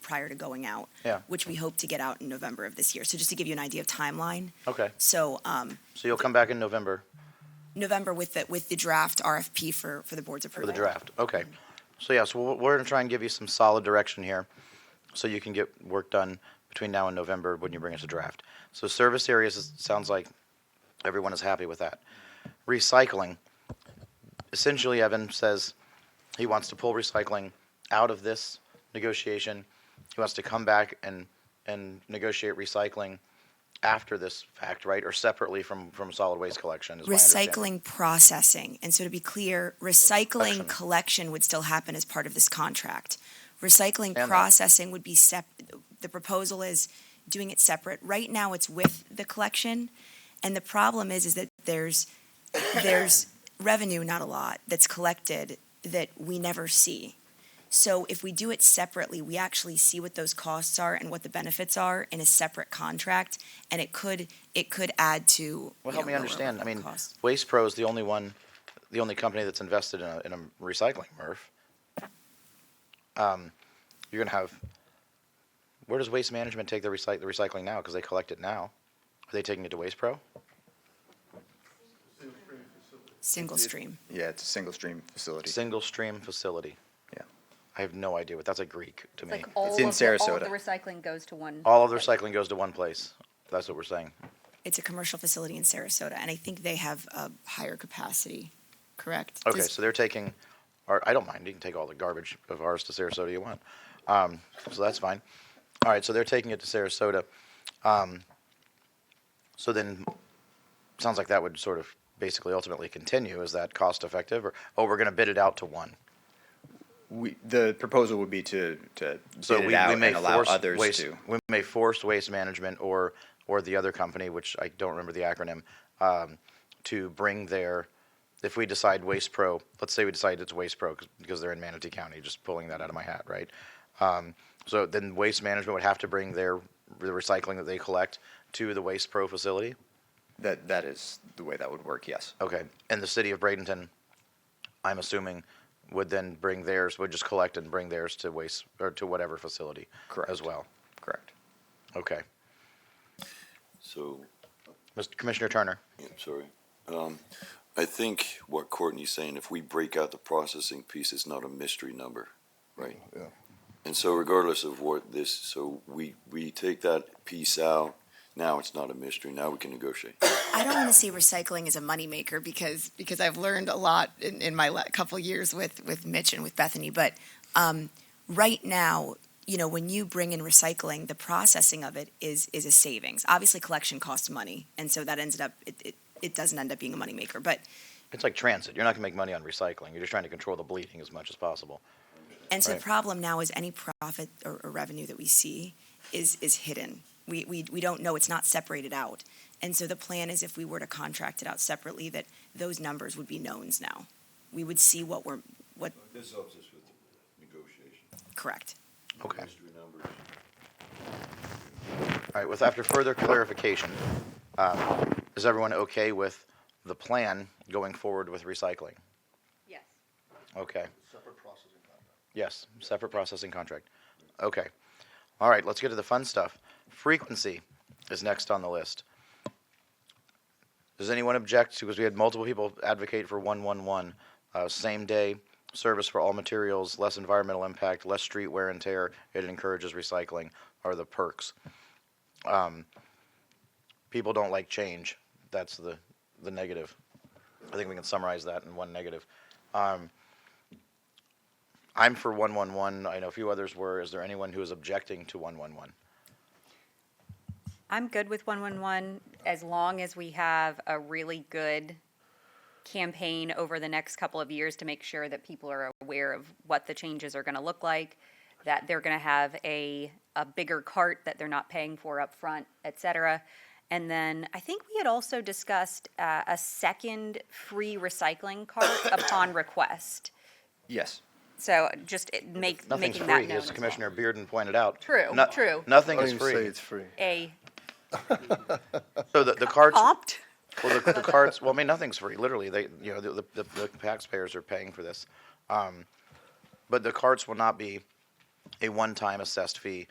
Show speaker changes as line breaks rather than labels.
prior to going out,
Yeah.
which we hope to get out in November of this year. So just to give you an idea of timeline.
Okay,
So um,
so you'll come back in November
November with the, with the draft RFP for, for the board's
for
approval.
the draft. Okay. So yeah, so we're- we're gonna try and give you some solid direction here, so you can get work done between now and November when you bring us a draft. So service areas, it sounds like everyone is happy with that. Recycling, essentially Evan says he wants to pull recycling out of this negotiation. He wants to come back and, and negotiate recycling after this fact, right? Or separately from, from solid waste collection is my understanding.
Recycling processing. And so to be clear, recycling
Collection.
collection would still happen as part of this contract. Recycling
that.
processing would be sep, the proposal is doing it separate. Right now, it's with the collection. And the problem is, is that there's, there's revenue, not a lot, that's collected that we never see. So if we do it separately, we actually see what those costs are and what the benefits are in a separate contract, and it could, it could add to. you
Well, help
know,
me
lower
understand. I
overall
mean,
costs.
Waste Pro is the only one, the only company that's invested in a, in a recycling MRF. Um, you're gonna have, where does Waste Management take the recyc, the recycling now? Because they collect it now. Are they taking it to Waste Pro?
Single stream.
Yeah, it's a single stream facility.
Single stream facility.
Yeah.
I have no idea, but that's a Greek to
It's
me.
like all
It's in
of the- All of
Sarasota.
the recycling goes to one.
All of the recycling goes to one place. That's what we're saying.
It's a commercial facility in Sarasota, and I think they have a higher capacity, correct?
Okay,
Does-
so they're taking, or I don't mind, you can take all the garbage of ours to Sarasota you want. Um, so that's fine. All right, so they're taking it to Sarasota. Um, so then, sounds like that would sort of basically ultimately continue. Is that cost effective or, oh, we're gonna bid it out to one?
We, the proposal would be to, to
So
bid it
we,
out
we may
and allow
force
others
waste,
to.
we may force waste management or, or the other company, which I don't remember the acronym, um, to bring their, if we decide Waste Pro, let's say we decide it's Waste Pro 'cause- because they're in Manatee County, just pulling that out of my hat, right? Um, so then waste management would have to bring their, the recycling that they collect to the Waste Pro facility?
That, that is the way that would work, yes.
Okay, and the city of Bradenton, I'm assuming, would then bring theirs, would just collect and bring theirs to waste, or to whatever facility as
Correct.
well?
Correct.
Okay.
So,
Mr. Commissioner Turner,
yeah, sorry. Um, I think what Courtney's saying, if we break out the processing piece, it's not a mystery number, right?
Yeah.
And so regardless of what this, so we, we take that piece out, now it's not a mystery, now we can negotiate.
I don't want to say recycling is a moneymaker because, because I've learned a lot in, in my la- couple years with, with Mitch and with Bethany, but um, right now, you know, when you bring in recycling, the processing of it is, is a savings. Obviously, collection costs money, and so that ended up, it, it, it doesn't end up being a moneymaker, but
it's like transit. You're not going to make money on recycling. You're just trying to control the bleeding as much as possible.
And so the
Right.
problem now is any profit or, or revenue that we see is, is hidden. We, we, we don't know, it's not separated out. And so the plan is if we were to contract it out separately, that those numbers would be knowns now. We would see what we're, what,
This helps us with negotiation.
correct.
Okay. All
Mystery numbers.
right. With after further clarification, um, is everyone okay with the plan going forward with recycling?
Yes.
Okay.
Separate processing contract.
Yes. Separate processing contract. Okay. All right. Let's get to the fun stuff. Frequency is next on the list. Does anyone object? Because we had multiple people advocate for 111, uh, same day service for all materials, less environmental impact, less street wear and tear. It encourages recycling. Are the perks? Um, people don't like change. That's the the negative. I think we can summarize that in one negative. Um, I'm for 111. I know a few others were. Is there anyone who is objecting to 111?
I'm good with 111 as long as we have a really good campaign over the next couple of years to make sure that people are aware of what the changes are going to look like, that they're going to have a, a bigger cart that they're not paying for up front, et cetera. And then I think we had also discussed uh, a second free recycling cart upon request.
Yes.
So just it- make,
Nothing's
making that known
free, as
as well.
Commissioner Bearden pointed out.
True,
No-
true.
Nothing
I
is
didn't say
free.
it's free.
A
So the, the carts,
opt?
well, the, the carts, well, I mean, nothing's free, literally. They, you know, the, the, the- the taxpayers are paying for this. Um, but the carts will not be a one-time assessed fee